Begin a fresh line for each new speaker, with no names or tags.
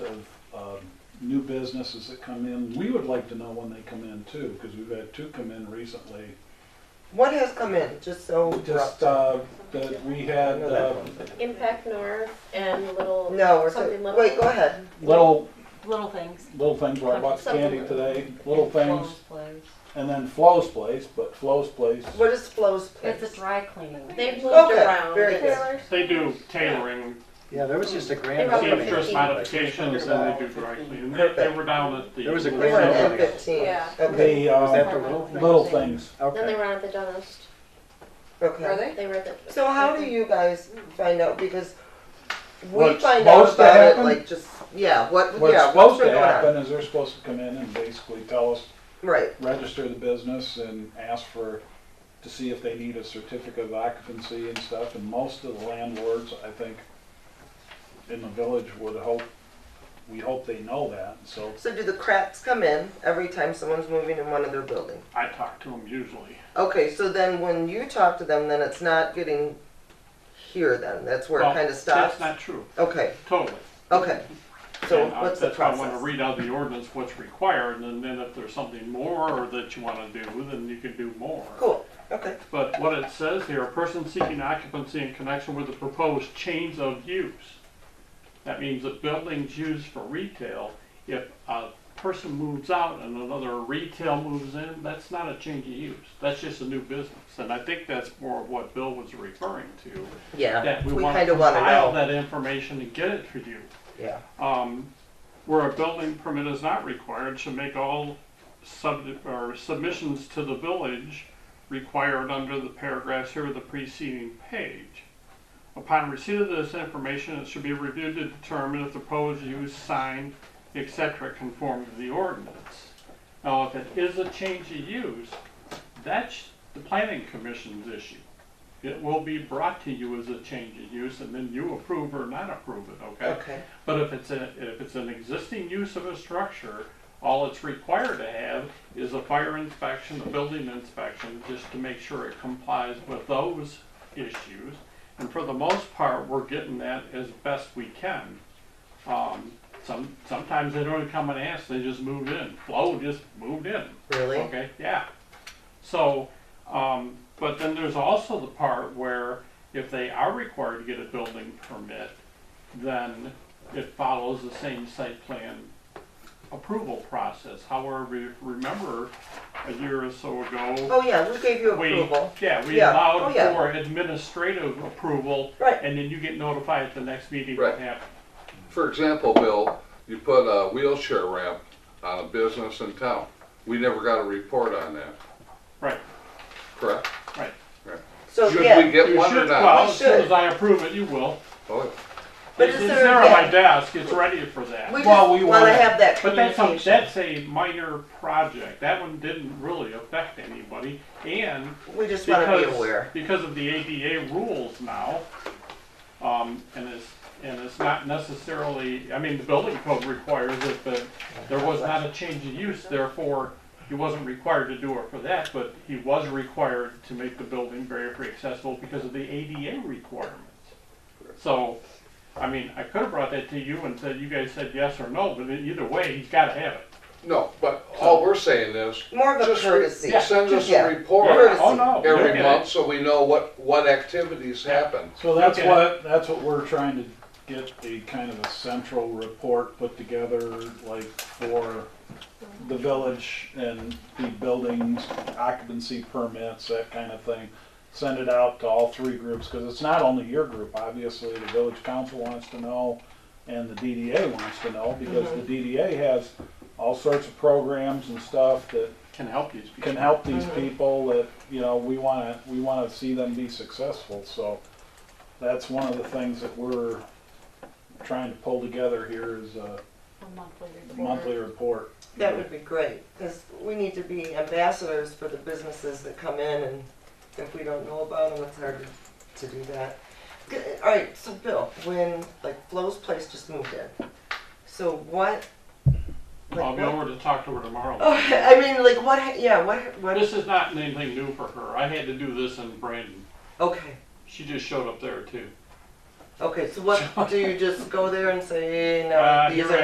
um, new businesses that come in. We would like to know when they come in too, because we've had two come in recently.
What has come in, just so. we're up
Just,
to-
uh, that we had,
No, that
uh,
one.
Impact North and Little,
No, we're,
something
so-
little.
wait, go ahead.
little,
Little things.
little things, where I bought the candy today, little things,
Clothes place.
and then Flo's Place, but Flo's Place,
What is Flo's place?
It's a dry cleaning.
They've moved
Okay,
around.
very
the
good.
tailors.
They do tailoring,
Yeah, there was just a
They
grand
wrote
opening.
it.
seamstress modifications, and they do dry cleaning. They, they were down at the.
There was a
We were
grand
at
opening.
fifteen.
Yeah.
Okay,
the,
Was that
uh,
the little thing?
little things.
Then they
Okay.
were at the dentist.
Are
okay.
they?
They were at the.
So how do you guys find out, because we
What's
find out
supposed to
about it,
happen?
like, just, yeah, what,
What's
yeah, what's
supposed to
going on?
happen is they're supposed to come in and basically tell us,
Right,
register the business and ask for, to see if they need a certificate of occupancy and stuff, and most of the landlords, I think, in the village would hope, we hope they know that, so
so do the cracks come in every time someone's moving in one of their buildings?
I talk to them usually.
Okay, so then when you talk to them, then it's not getting here then, that's where
Well,
it kinda stops?
That's not true,
Okay,
totally.
okay, so
And I-
what's the
That's why I wanna
process?
read out the ordinance, what's required, and then if there's something more that you wanna do, then you can do more.
Cool, okay,
But what it says here, a person seeking occupancy in connection with the proposed change of use. That means that buildings used for retail, if a person moves out and another retail moves in, that's not a change of use. That's just a new business. And I think that's more of what Bill was referring to,
yeah,
that we
we
want
kinda
to
wanna
compile
know,
that information and get it to you.
yeah,
Um, where a building permit is not required, should make all sub, or submissions to the village required under the paragraphs here of the preceding page. Upon receipt of this information, it should be reviewed to determine if the proposed use, sign, et cetera, conform to the ordinance. Now, if it is a change of use, that's the planning commission's issue. It will be brought to you as a change of use, and then you approve or not approve it,
okay,
but if it's a, if it's an existing use of a structure, all it's required to have is a fire inspection, a building inspection, just to make sure it complies with those issues. And for the most part, we're getting that as best we can. Um, some, sometimes they don't even come and ask, they just move in. Flo just moved in.
really?
Okay, yeah. So, um, but then there's also the part where if they are required to get a building permit, then it follows the same site plan approval process. However, remember a year or so ago,
Oh, yeah, we gave you
we,
approval.
yeah, we
Yeah, oh,
allowed
yeah.
for administrative approval,
Right,
and then you get notified at the next meeting what
Right.
happened.
For example, Bill, you put a wheelchair ramp on a business in town. We never got a report on that,
Right,
correct?
right.
so
Should
yeah.
we get
You
one or
should, well,
not?
as soon as I approve it, you will.
Oh,
But
It's
is
it's
there-
there on
yeah.
my desk, it's ready for that.
We
Well,
just
we
want to
wanna-
have that
But that's a,
communication.
that's a minor project. That one didn't really affect anybody. And
We just want to be
because,
aware.
because of the ADA rules now, um, and it's, and it's not necessarily, I mean, the building code requires it, but there was not a change of use, therefore, he wasn't required to do it for that, but he was required to make the building barrier-free accessible because of the ADA requirements. So, I mean, I could have brought that to you and said, you guys said yes or no, but either way, he's gotta have it.
No, but all we're saying is,
More of a
just
courtesy.
re- send us
Yeah.
a report
Courtesy.
Oh, no. you'll
every
get it.
month so we know what, what activities happen.
So that's
Okay.
what, that's what we're trying to get a kind of a central report put together, like for the village and the buildings, occupancy permits, that kind of thing. Send it out to all three groups, because it's not only your group, obviously, the village council wants to know and the DDA wants to know, because the DDA has all sorts of programs and stuff that
Can help these people.
can help these people that, you know, we wanna, we wanna see them be successful, so that's one of the things that we're trying to pull together here is a
A monthly report.
monthly report.
That would be great, because we need to be ambassadors for the businesses that come in, and if we don't know about them, it's hard to to do that. G- All right, so Bill, when, like, Flo's Place just moved in, so what? like,
I'll be
what-
over to talk to her tomorrow.
Okay, I mean, like, what, ha- yeah, what, what,
This is not anything new for her. I had to do this in Brandon.
okay,
She just showed up there too.
okay, so what, do you just go there and say,
Uh,
no, these
you're
are